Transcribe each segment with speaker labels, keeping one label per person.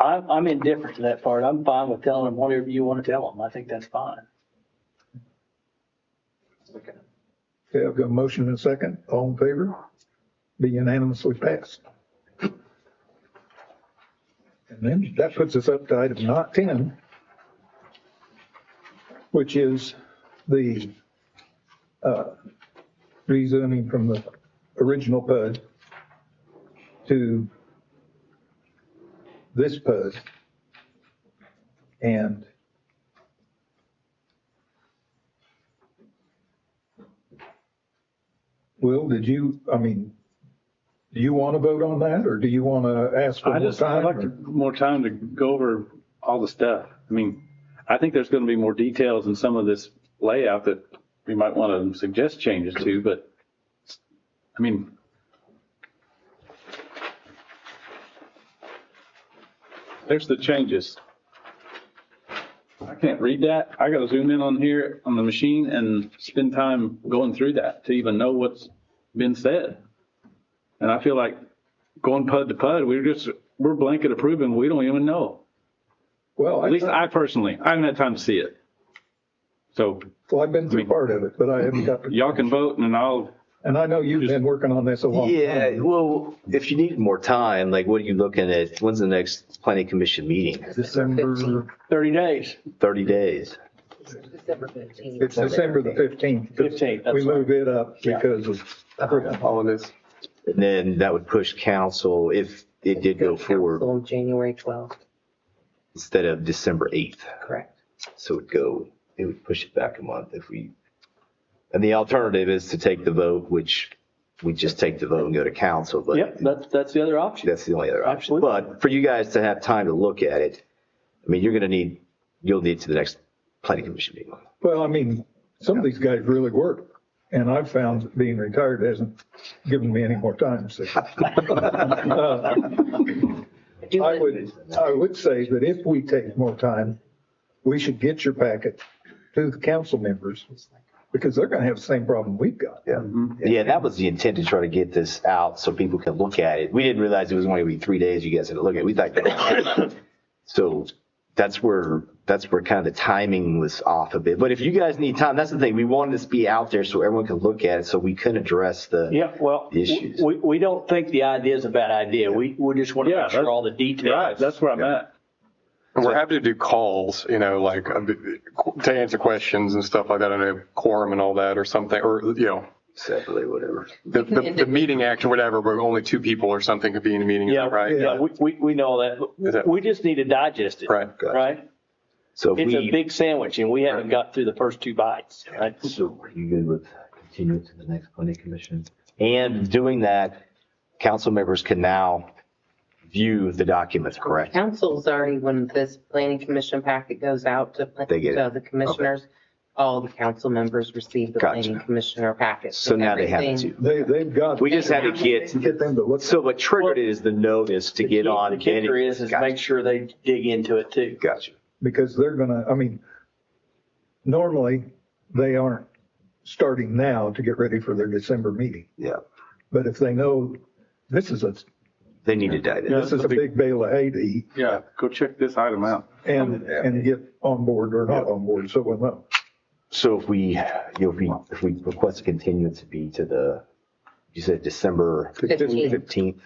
Speaker 1: I'm, I'm indifferent to that part. I'm fine with telling them whatever you want to tell them. I think that's fine.
Speaker 2: Okay, I've got a motion and a second. All in favor? Be unanimously passed. And then that puts us up to item not 10, which is the uh, rezoning from the original PUD to this PUD. And Will, did you, I mean, do you want to vote on that or do you want to ask for
Speaker 3: I
Speaker 2: more
Speaker 3: just, I'd
Speaker 2: time?
Speaker 3: like to,
Speaker 2: or-
Speaker 3: more time to go over all the stuff. I mean, I think there's going to be more details in some of this layout that we might want to suggest changes to, but, I mean, there's the changes. I can't read that. I got to zoom in on here on the machine and spend time going through that to even know what's been said. And I feel like going PUD to PUD, we're just, we're blanket approving, we don't even know.
Speaker 2: Well,
Speaker 3: At least
Speaker 2: I,
Speaker 3: I personally, I haven't had time to see it. So
Speaker 2: well, I've been through part of it, but I haven't got, to-
Speaker 3: y'all can vote and I'll,
Speaker 2: and I know you've been working on this a long time.
Speaker 4: Yeah, well, if you need more time, like what are you looking at? When's the next planning commission meeting?
Speaker 2: December,
Speaker 1: Thirty days,
Speaker 4: Thirty days.
Speaker 5: December fifteenth.
Speaker 2: it's December the 15th.
Speaker 1: 15th, that's
Speaker 2: We move it up
Speaker 1: Yeah.
Speaker 2: because of
Speaker 6: Holidays.
Speaker 4: And then that would push council, if it did go forward,
Speaker 5: On January twelfth,
Speaker 4: instead of December eighth.
Speaker 5: correct.
Speaker 4: So it'd go, it would push it back a month if we, and the alternative is to take the vote, which we just take the vote and go to council, but.
Speaker 1: yep, that's, that's the other option.
Speaker 4: That's the only other option.
Speaker 1: Absolutely.
Speaker 4: But for you guys to have time to look at it, I mean, you're going to need, you'll need to the next planning commission meeting.
Speaker 2: Well, I mean, some of these guys really work, and I've found that being retired hasn't given me any more time, so.
Speaker 5: Do
Speaker 2: I
Speaker 5: it-
Speaker 2: would, I would say that if we take more time, we should get your packet to the council members, because they're gonna have the same problem we've got.
Speaker 4: Yeah.
Speaker 1: Mm-hmm.
Speaker 4: Yeah, that was the intent to try to get this out so people can look at it. We didn't realize it was only gonna be three days you guys had to look at. it. We thought. So that's where, that's where kind of the timing was off a bit. But if you guys need time, that's the thing. We wanted this to be out there so everyone could look at it, so we couldn't address the.
Speaker 1: Yeah, well,
Speaker 4: Issues.
Speaker 1: we, we don't think the idea is a bad idea. We, we just want to
Speaker 3: Yeah,
Speaker 1: make sure
Speaker 3: that's-
Speaker 1: all the details.
Speaker 3: right, that's where I'm at.
Speaker 6: And we're happy to do calls, you know, like uh, to answer questions and stuff like that. I know quorum and all that or something, or, you know,
Speaker 4: Separately, whatever.
Speaker 6: the, the, the meeting act or whatever, where only two people or something could be in a meeting, is that
Speaker 1: Yeah,
Speaker 6: right?
Speaker 1: Yeah, we, we, we know
Speaker 6: Is
Speaker 1: that.
Speaker 6: that-
Speaker 1: We just need to digest it.
Speaker 6: Right.
Speaker 4: Gotcha.
Speaker 1: Right?
Speaker 4: So if
Speaker 1: It's a
Speaker 4: we,
Speaker 1: big sandwich and we haven't got through the first two bites, right?
Speaker 4: so are you good with continuing to the next planning commission? And doing that, council members can now view the documents, correct?
Speaker 5: Council's already, when this planning commission packet goes out to, plan-
Speaker 4: They get it.
Speaker 5: to the commissioners, all the council members receive the
Speaker 4: Gotcha.
Speaker 5: planning commissioner packet.
Speaker 4: So now they have
Speaker 5: Everything-
Speaker 4: to.
Speaker 2: They, they've got.
Speaker 4: We just had to get,
Speaker 2: Get them to look.
Speaker 4: so what triggered it is the notice to
Speaker 1: The
Speaker 4: get
Speaker 1: key-
Speaker 4: on.
Speaker 1: The kicker is, is make sure they dig into it too.
Speaker 4: Gotcha.
Speaker 2: because they're gonna, I mean, normally, they aren't starting now to get ready for their December meeting.
Speaker 4: Yeah.
Speaker 2: But if they know, this is a,
Speaker 4: They need to dive in.
Speaker 2: this is a big bale of hay to eat,
Speaker 3: Yeah, go check this item out.
Speaker 2: and, and get on board or not on board, so we'll know.
Speaker 4: So if we, you know, if we, if we request a continuance to be to the, you said December
Speaker 5: Fifteenth.
Speaker 4: fifteenth.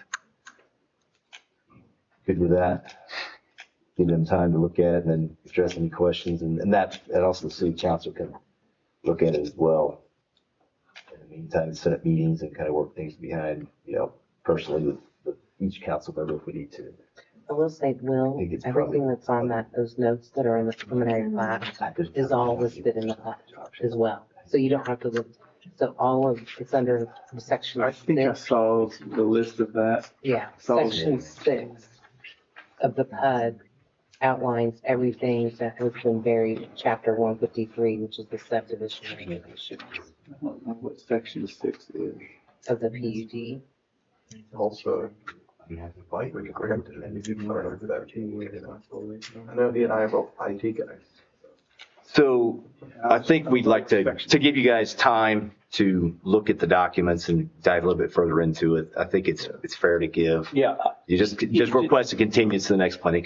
Speaker 4: Good with that. Give them time to look at it and then address any questions and, and that, and also the city council can look at it as well. In the meantime, set up meetings and kind of work things behind, you know, personally with, with each council member if we need to.
Speaker 5: I will say, Will,
Speaker 4: think it's probably-
Speaker 5: everything that's on that, those notes that are in the preliminary plat is all listed in the plat as well. So you don't have to look, so all of, it's under section. six.
Speaker 3: saw the list of that.
Speaker 5: Yeah,
Speaker 3: So-
Speaker 5: section six of the PUD outlines everything that has been buried in chapter one fifty-three, which is the subdivision regulations
Speaker 3: I don't know what section six is.
Speaker 5: of the PUD.
Speaker 7: Also, we can grant it and do further for that. I know he and I are both IT guys.
Speaker 4: So I think we'd like to, to give you guys time to look at the documents and dive a little bit further into it. I think it's, it's fair to give.
Speaker 1: Yeah,
Speaker 4: You just, just request a continuance to the next planning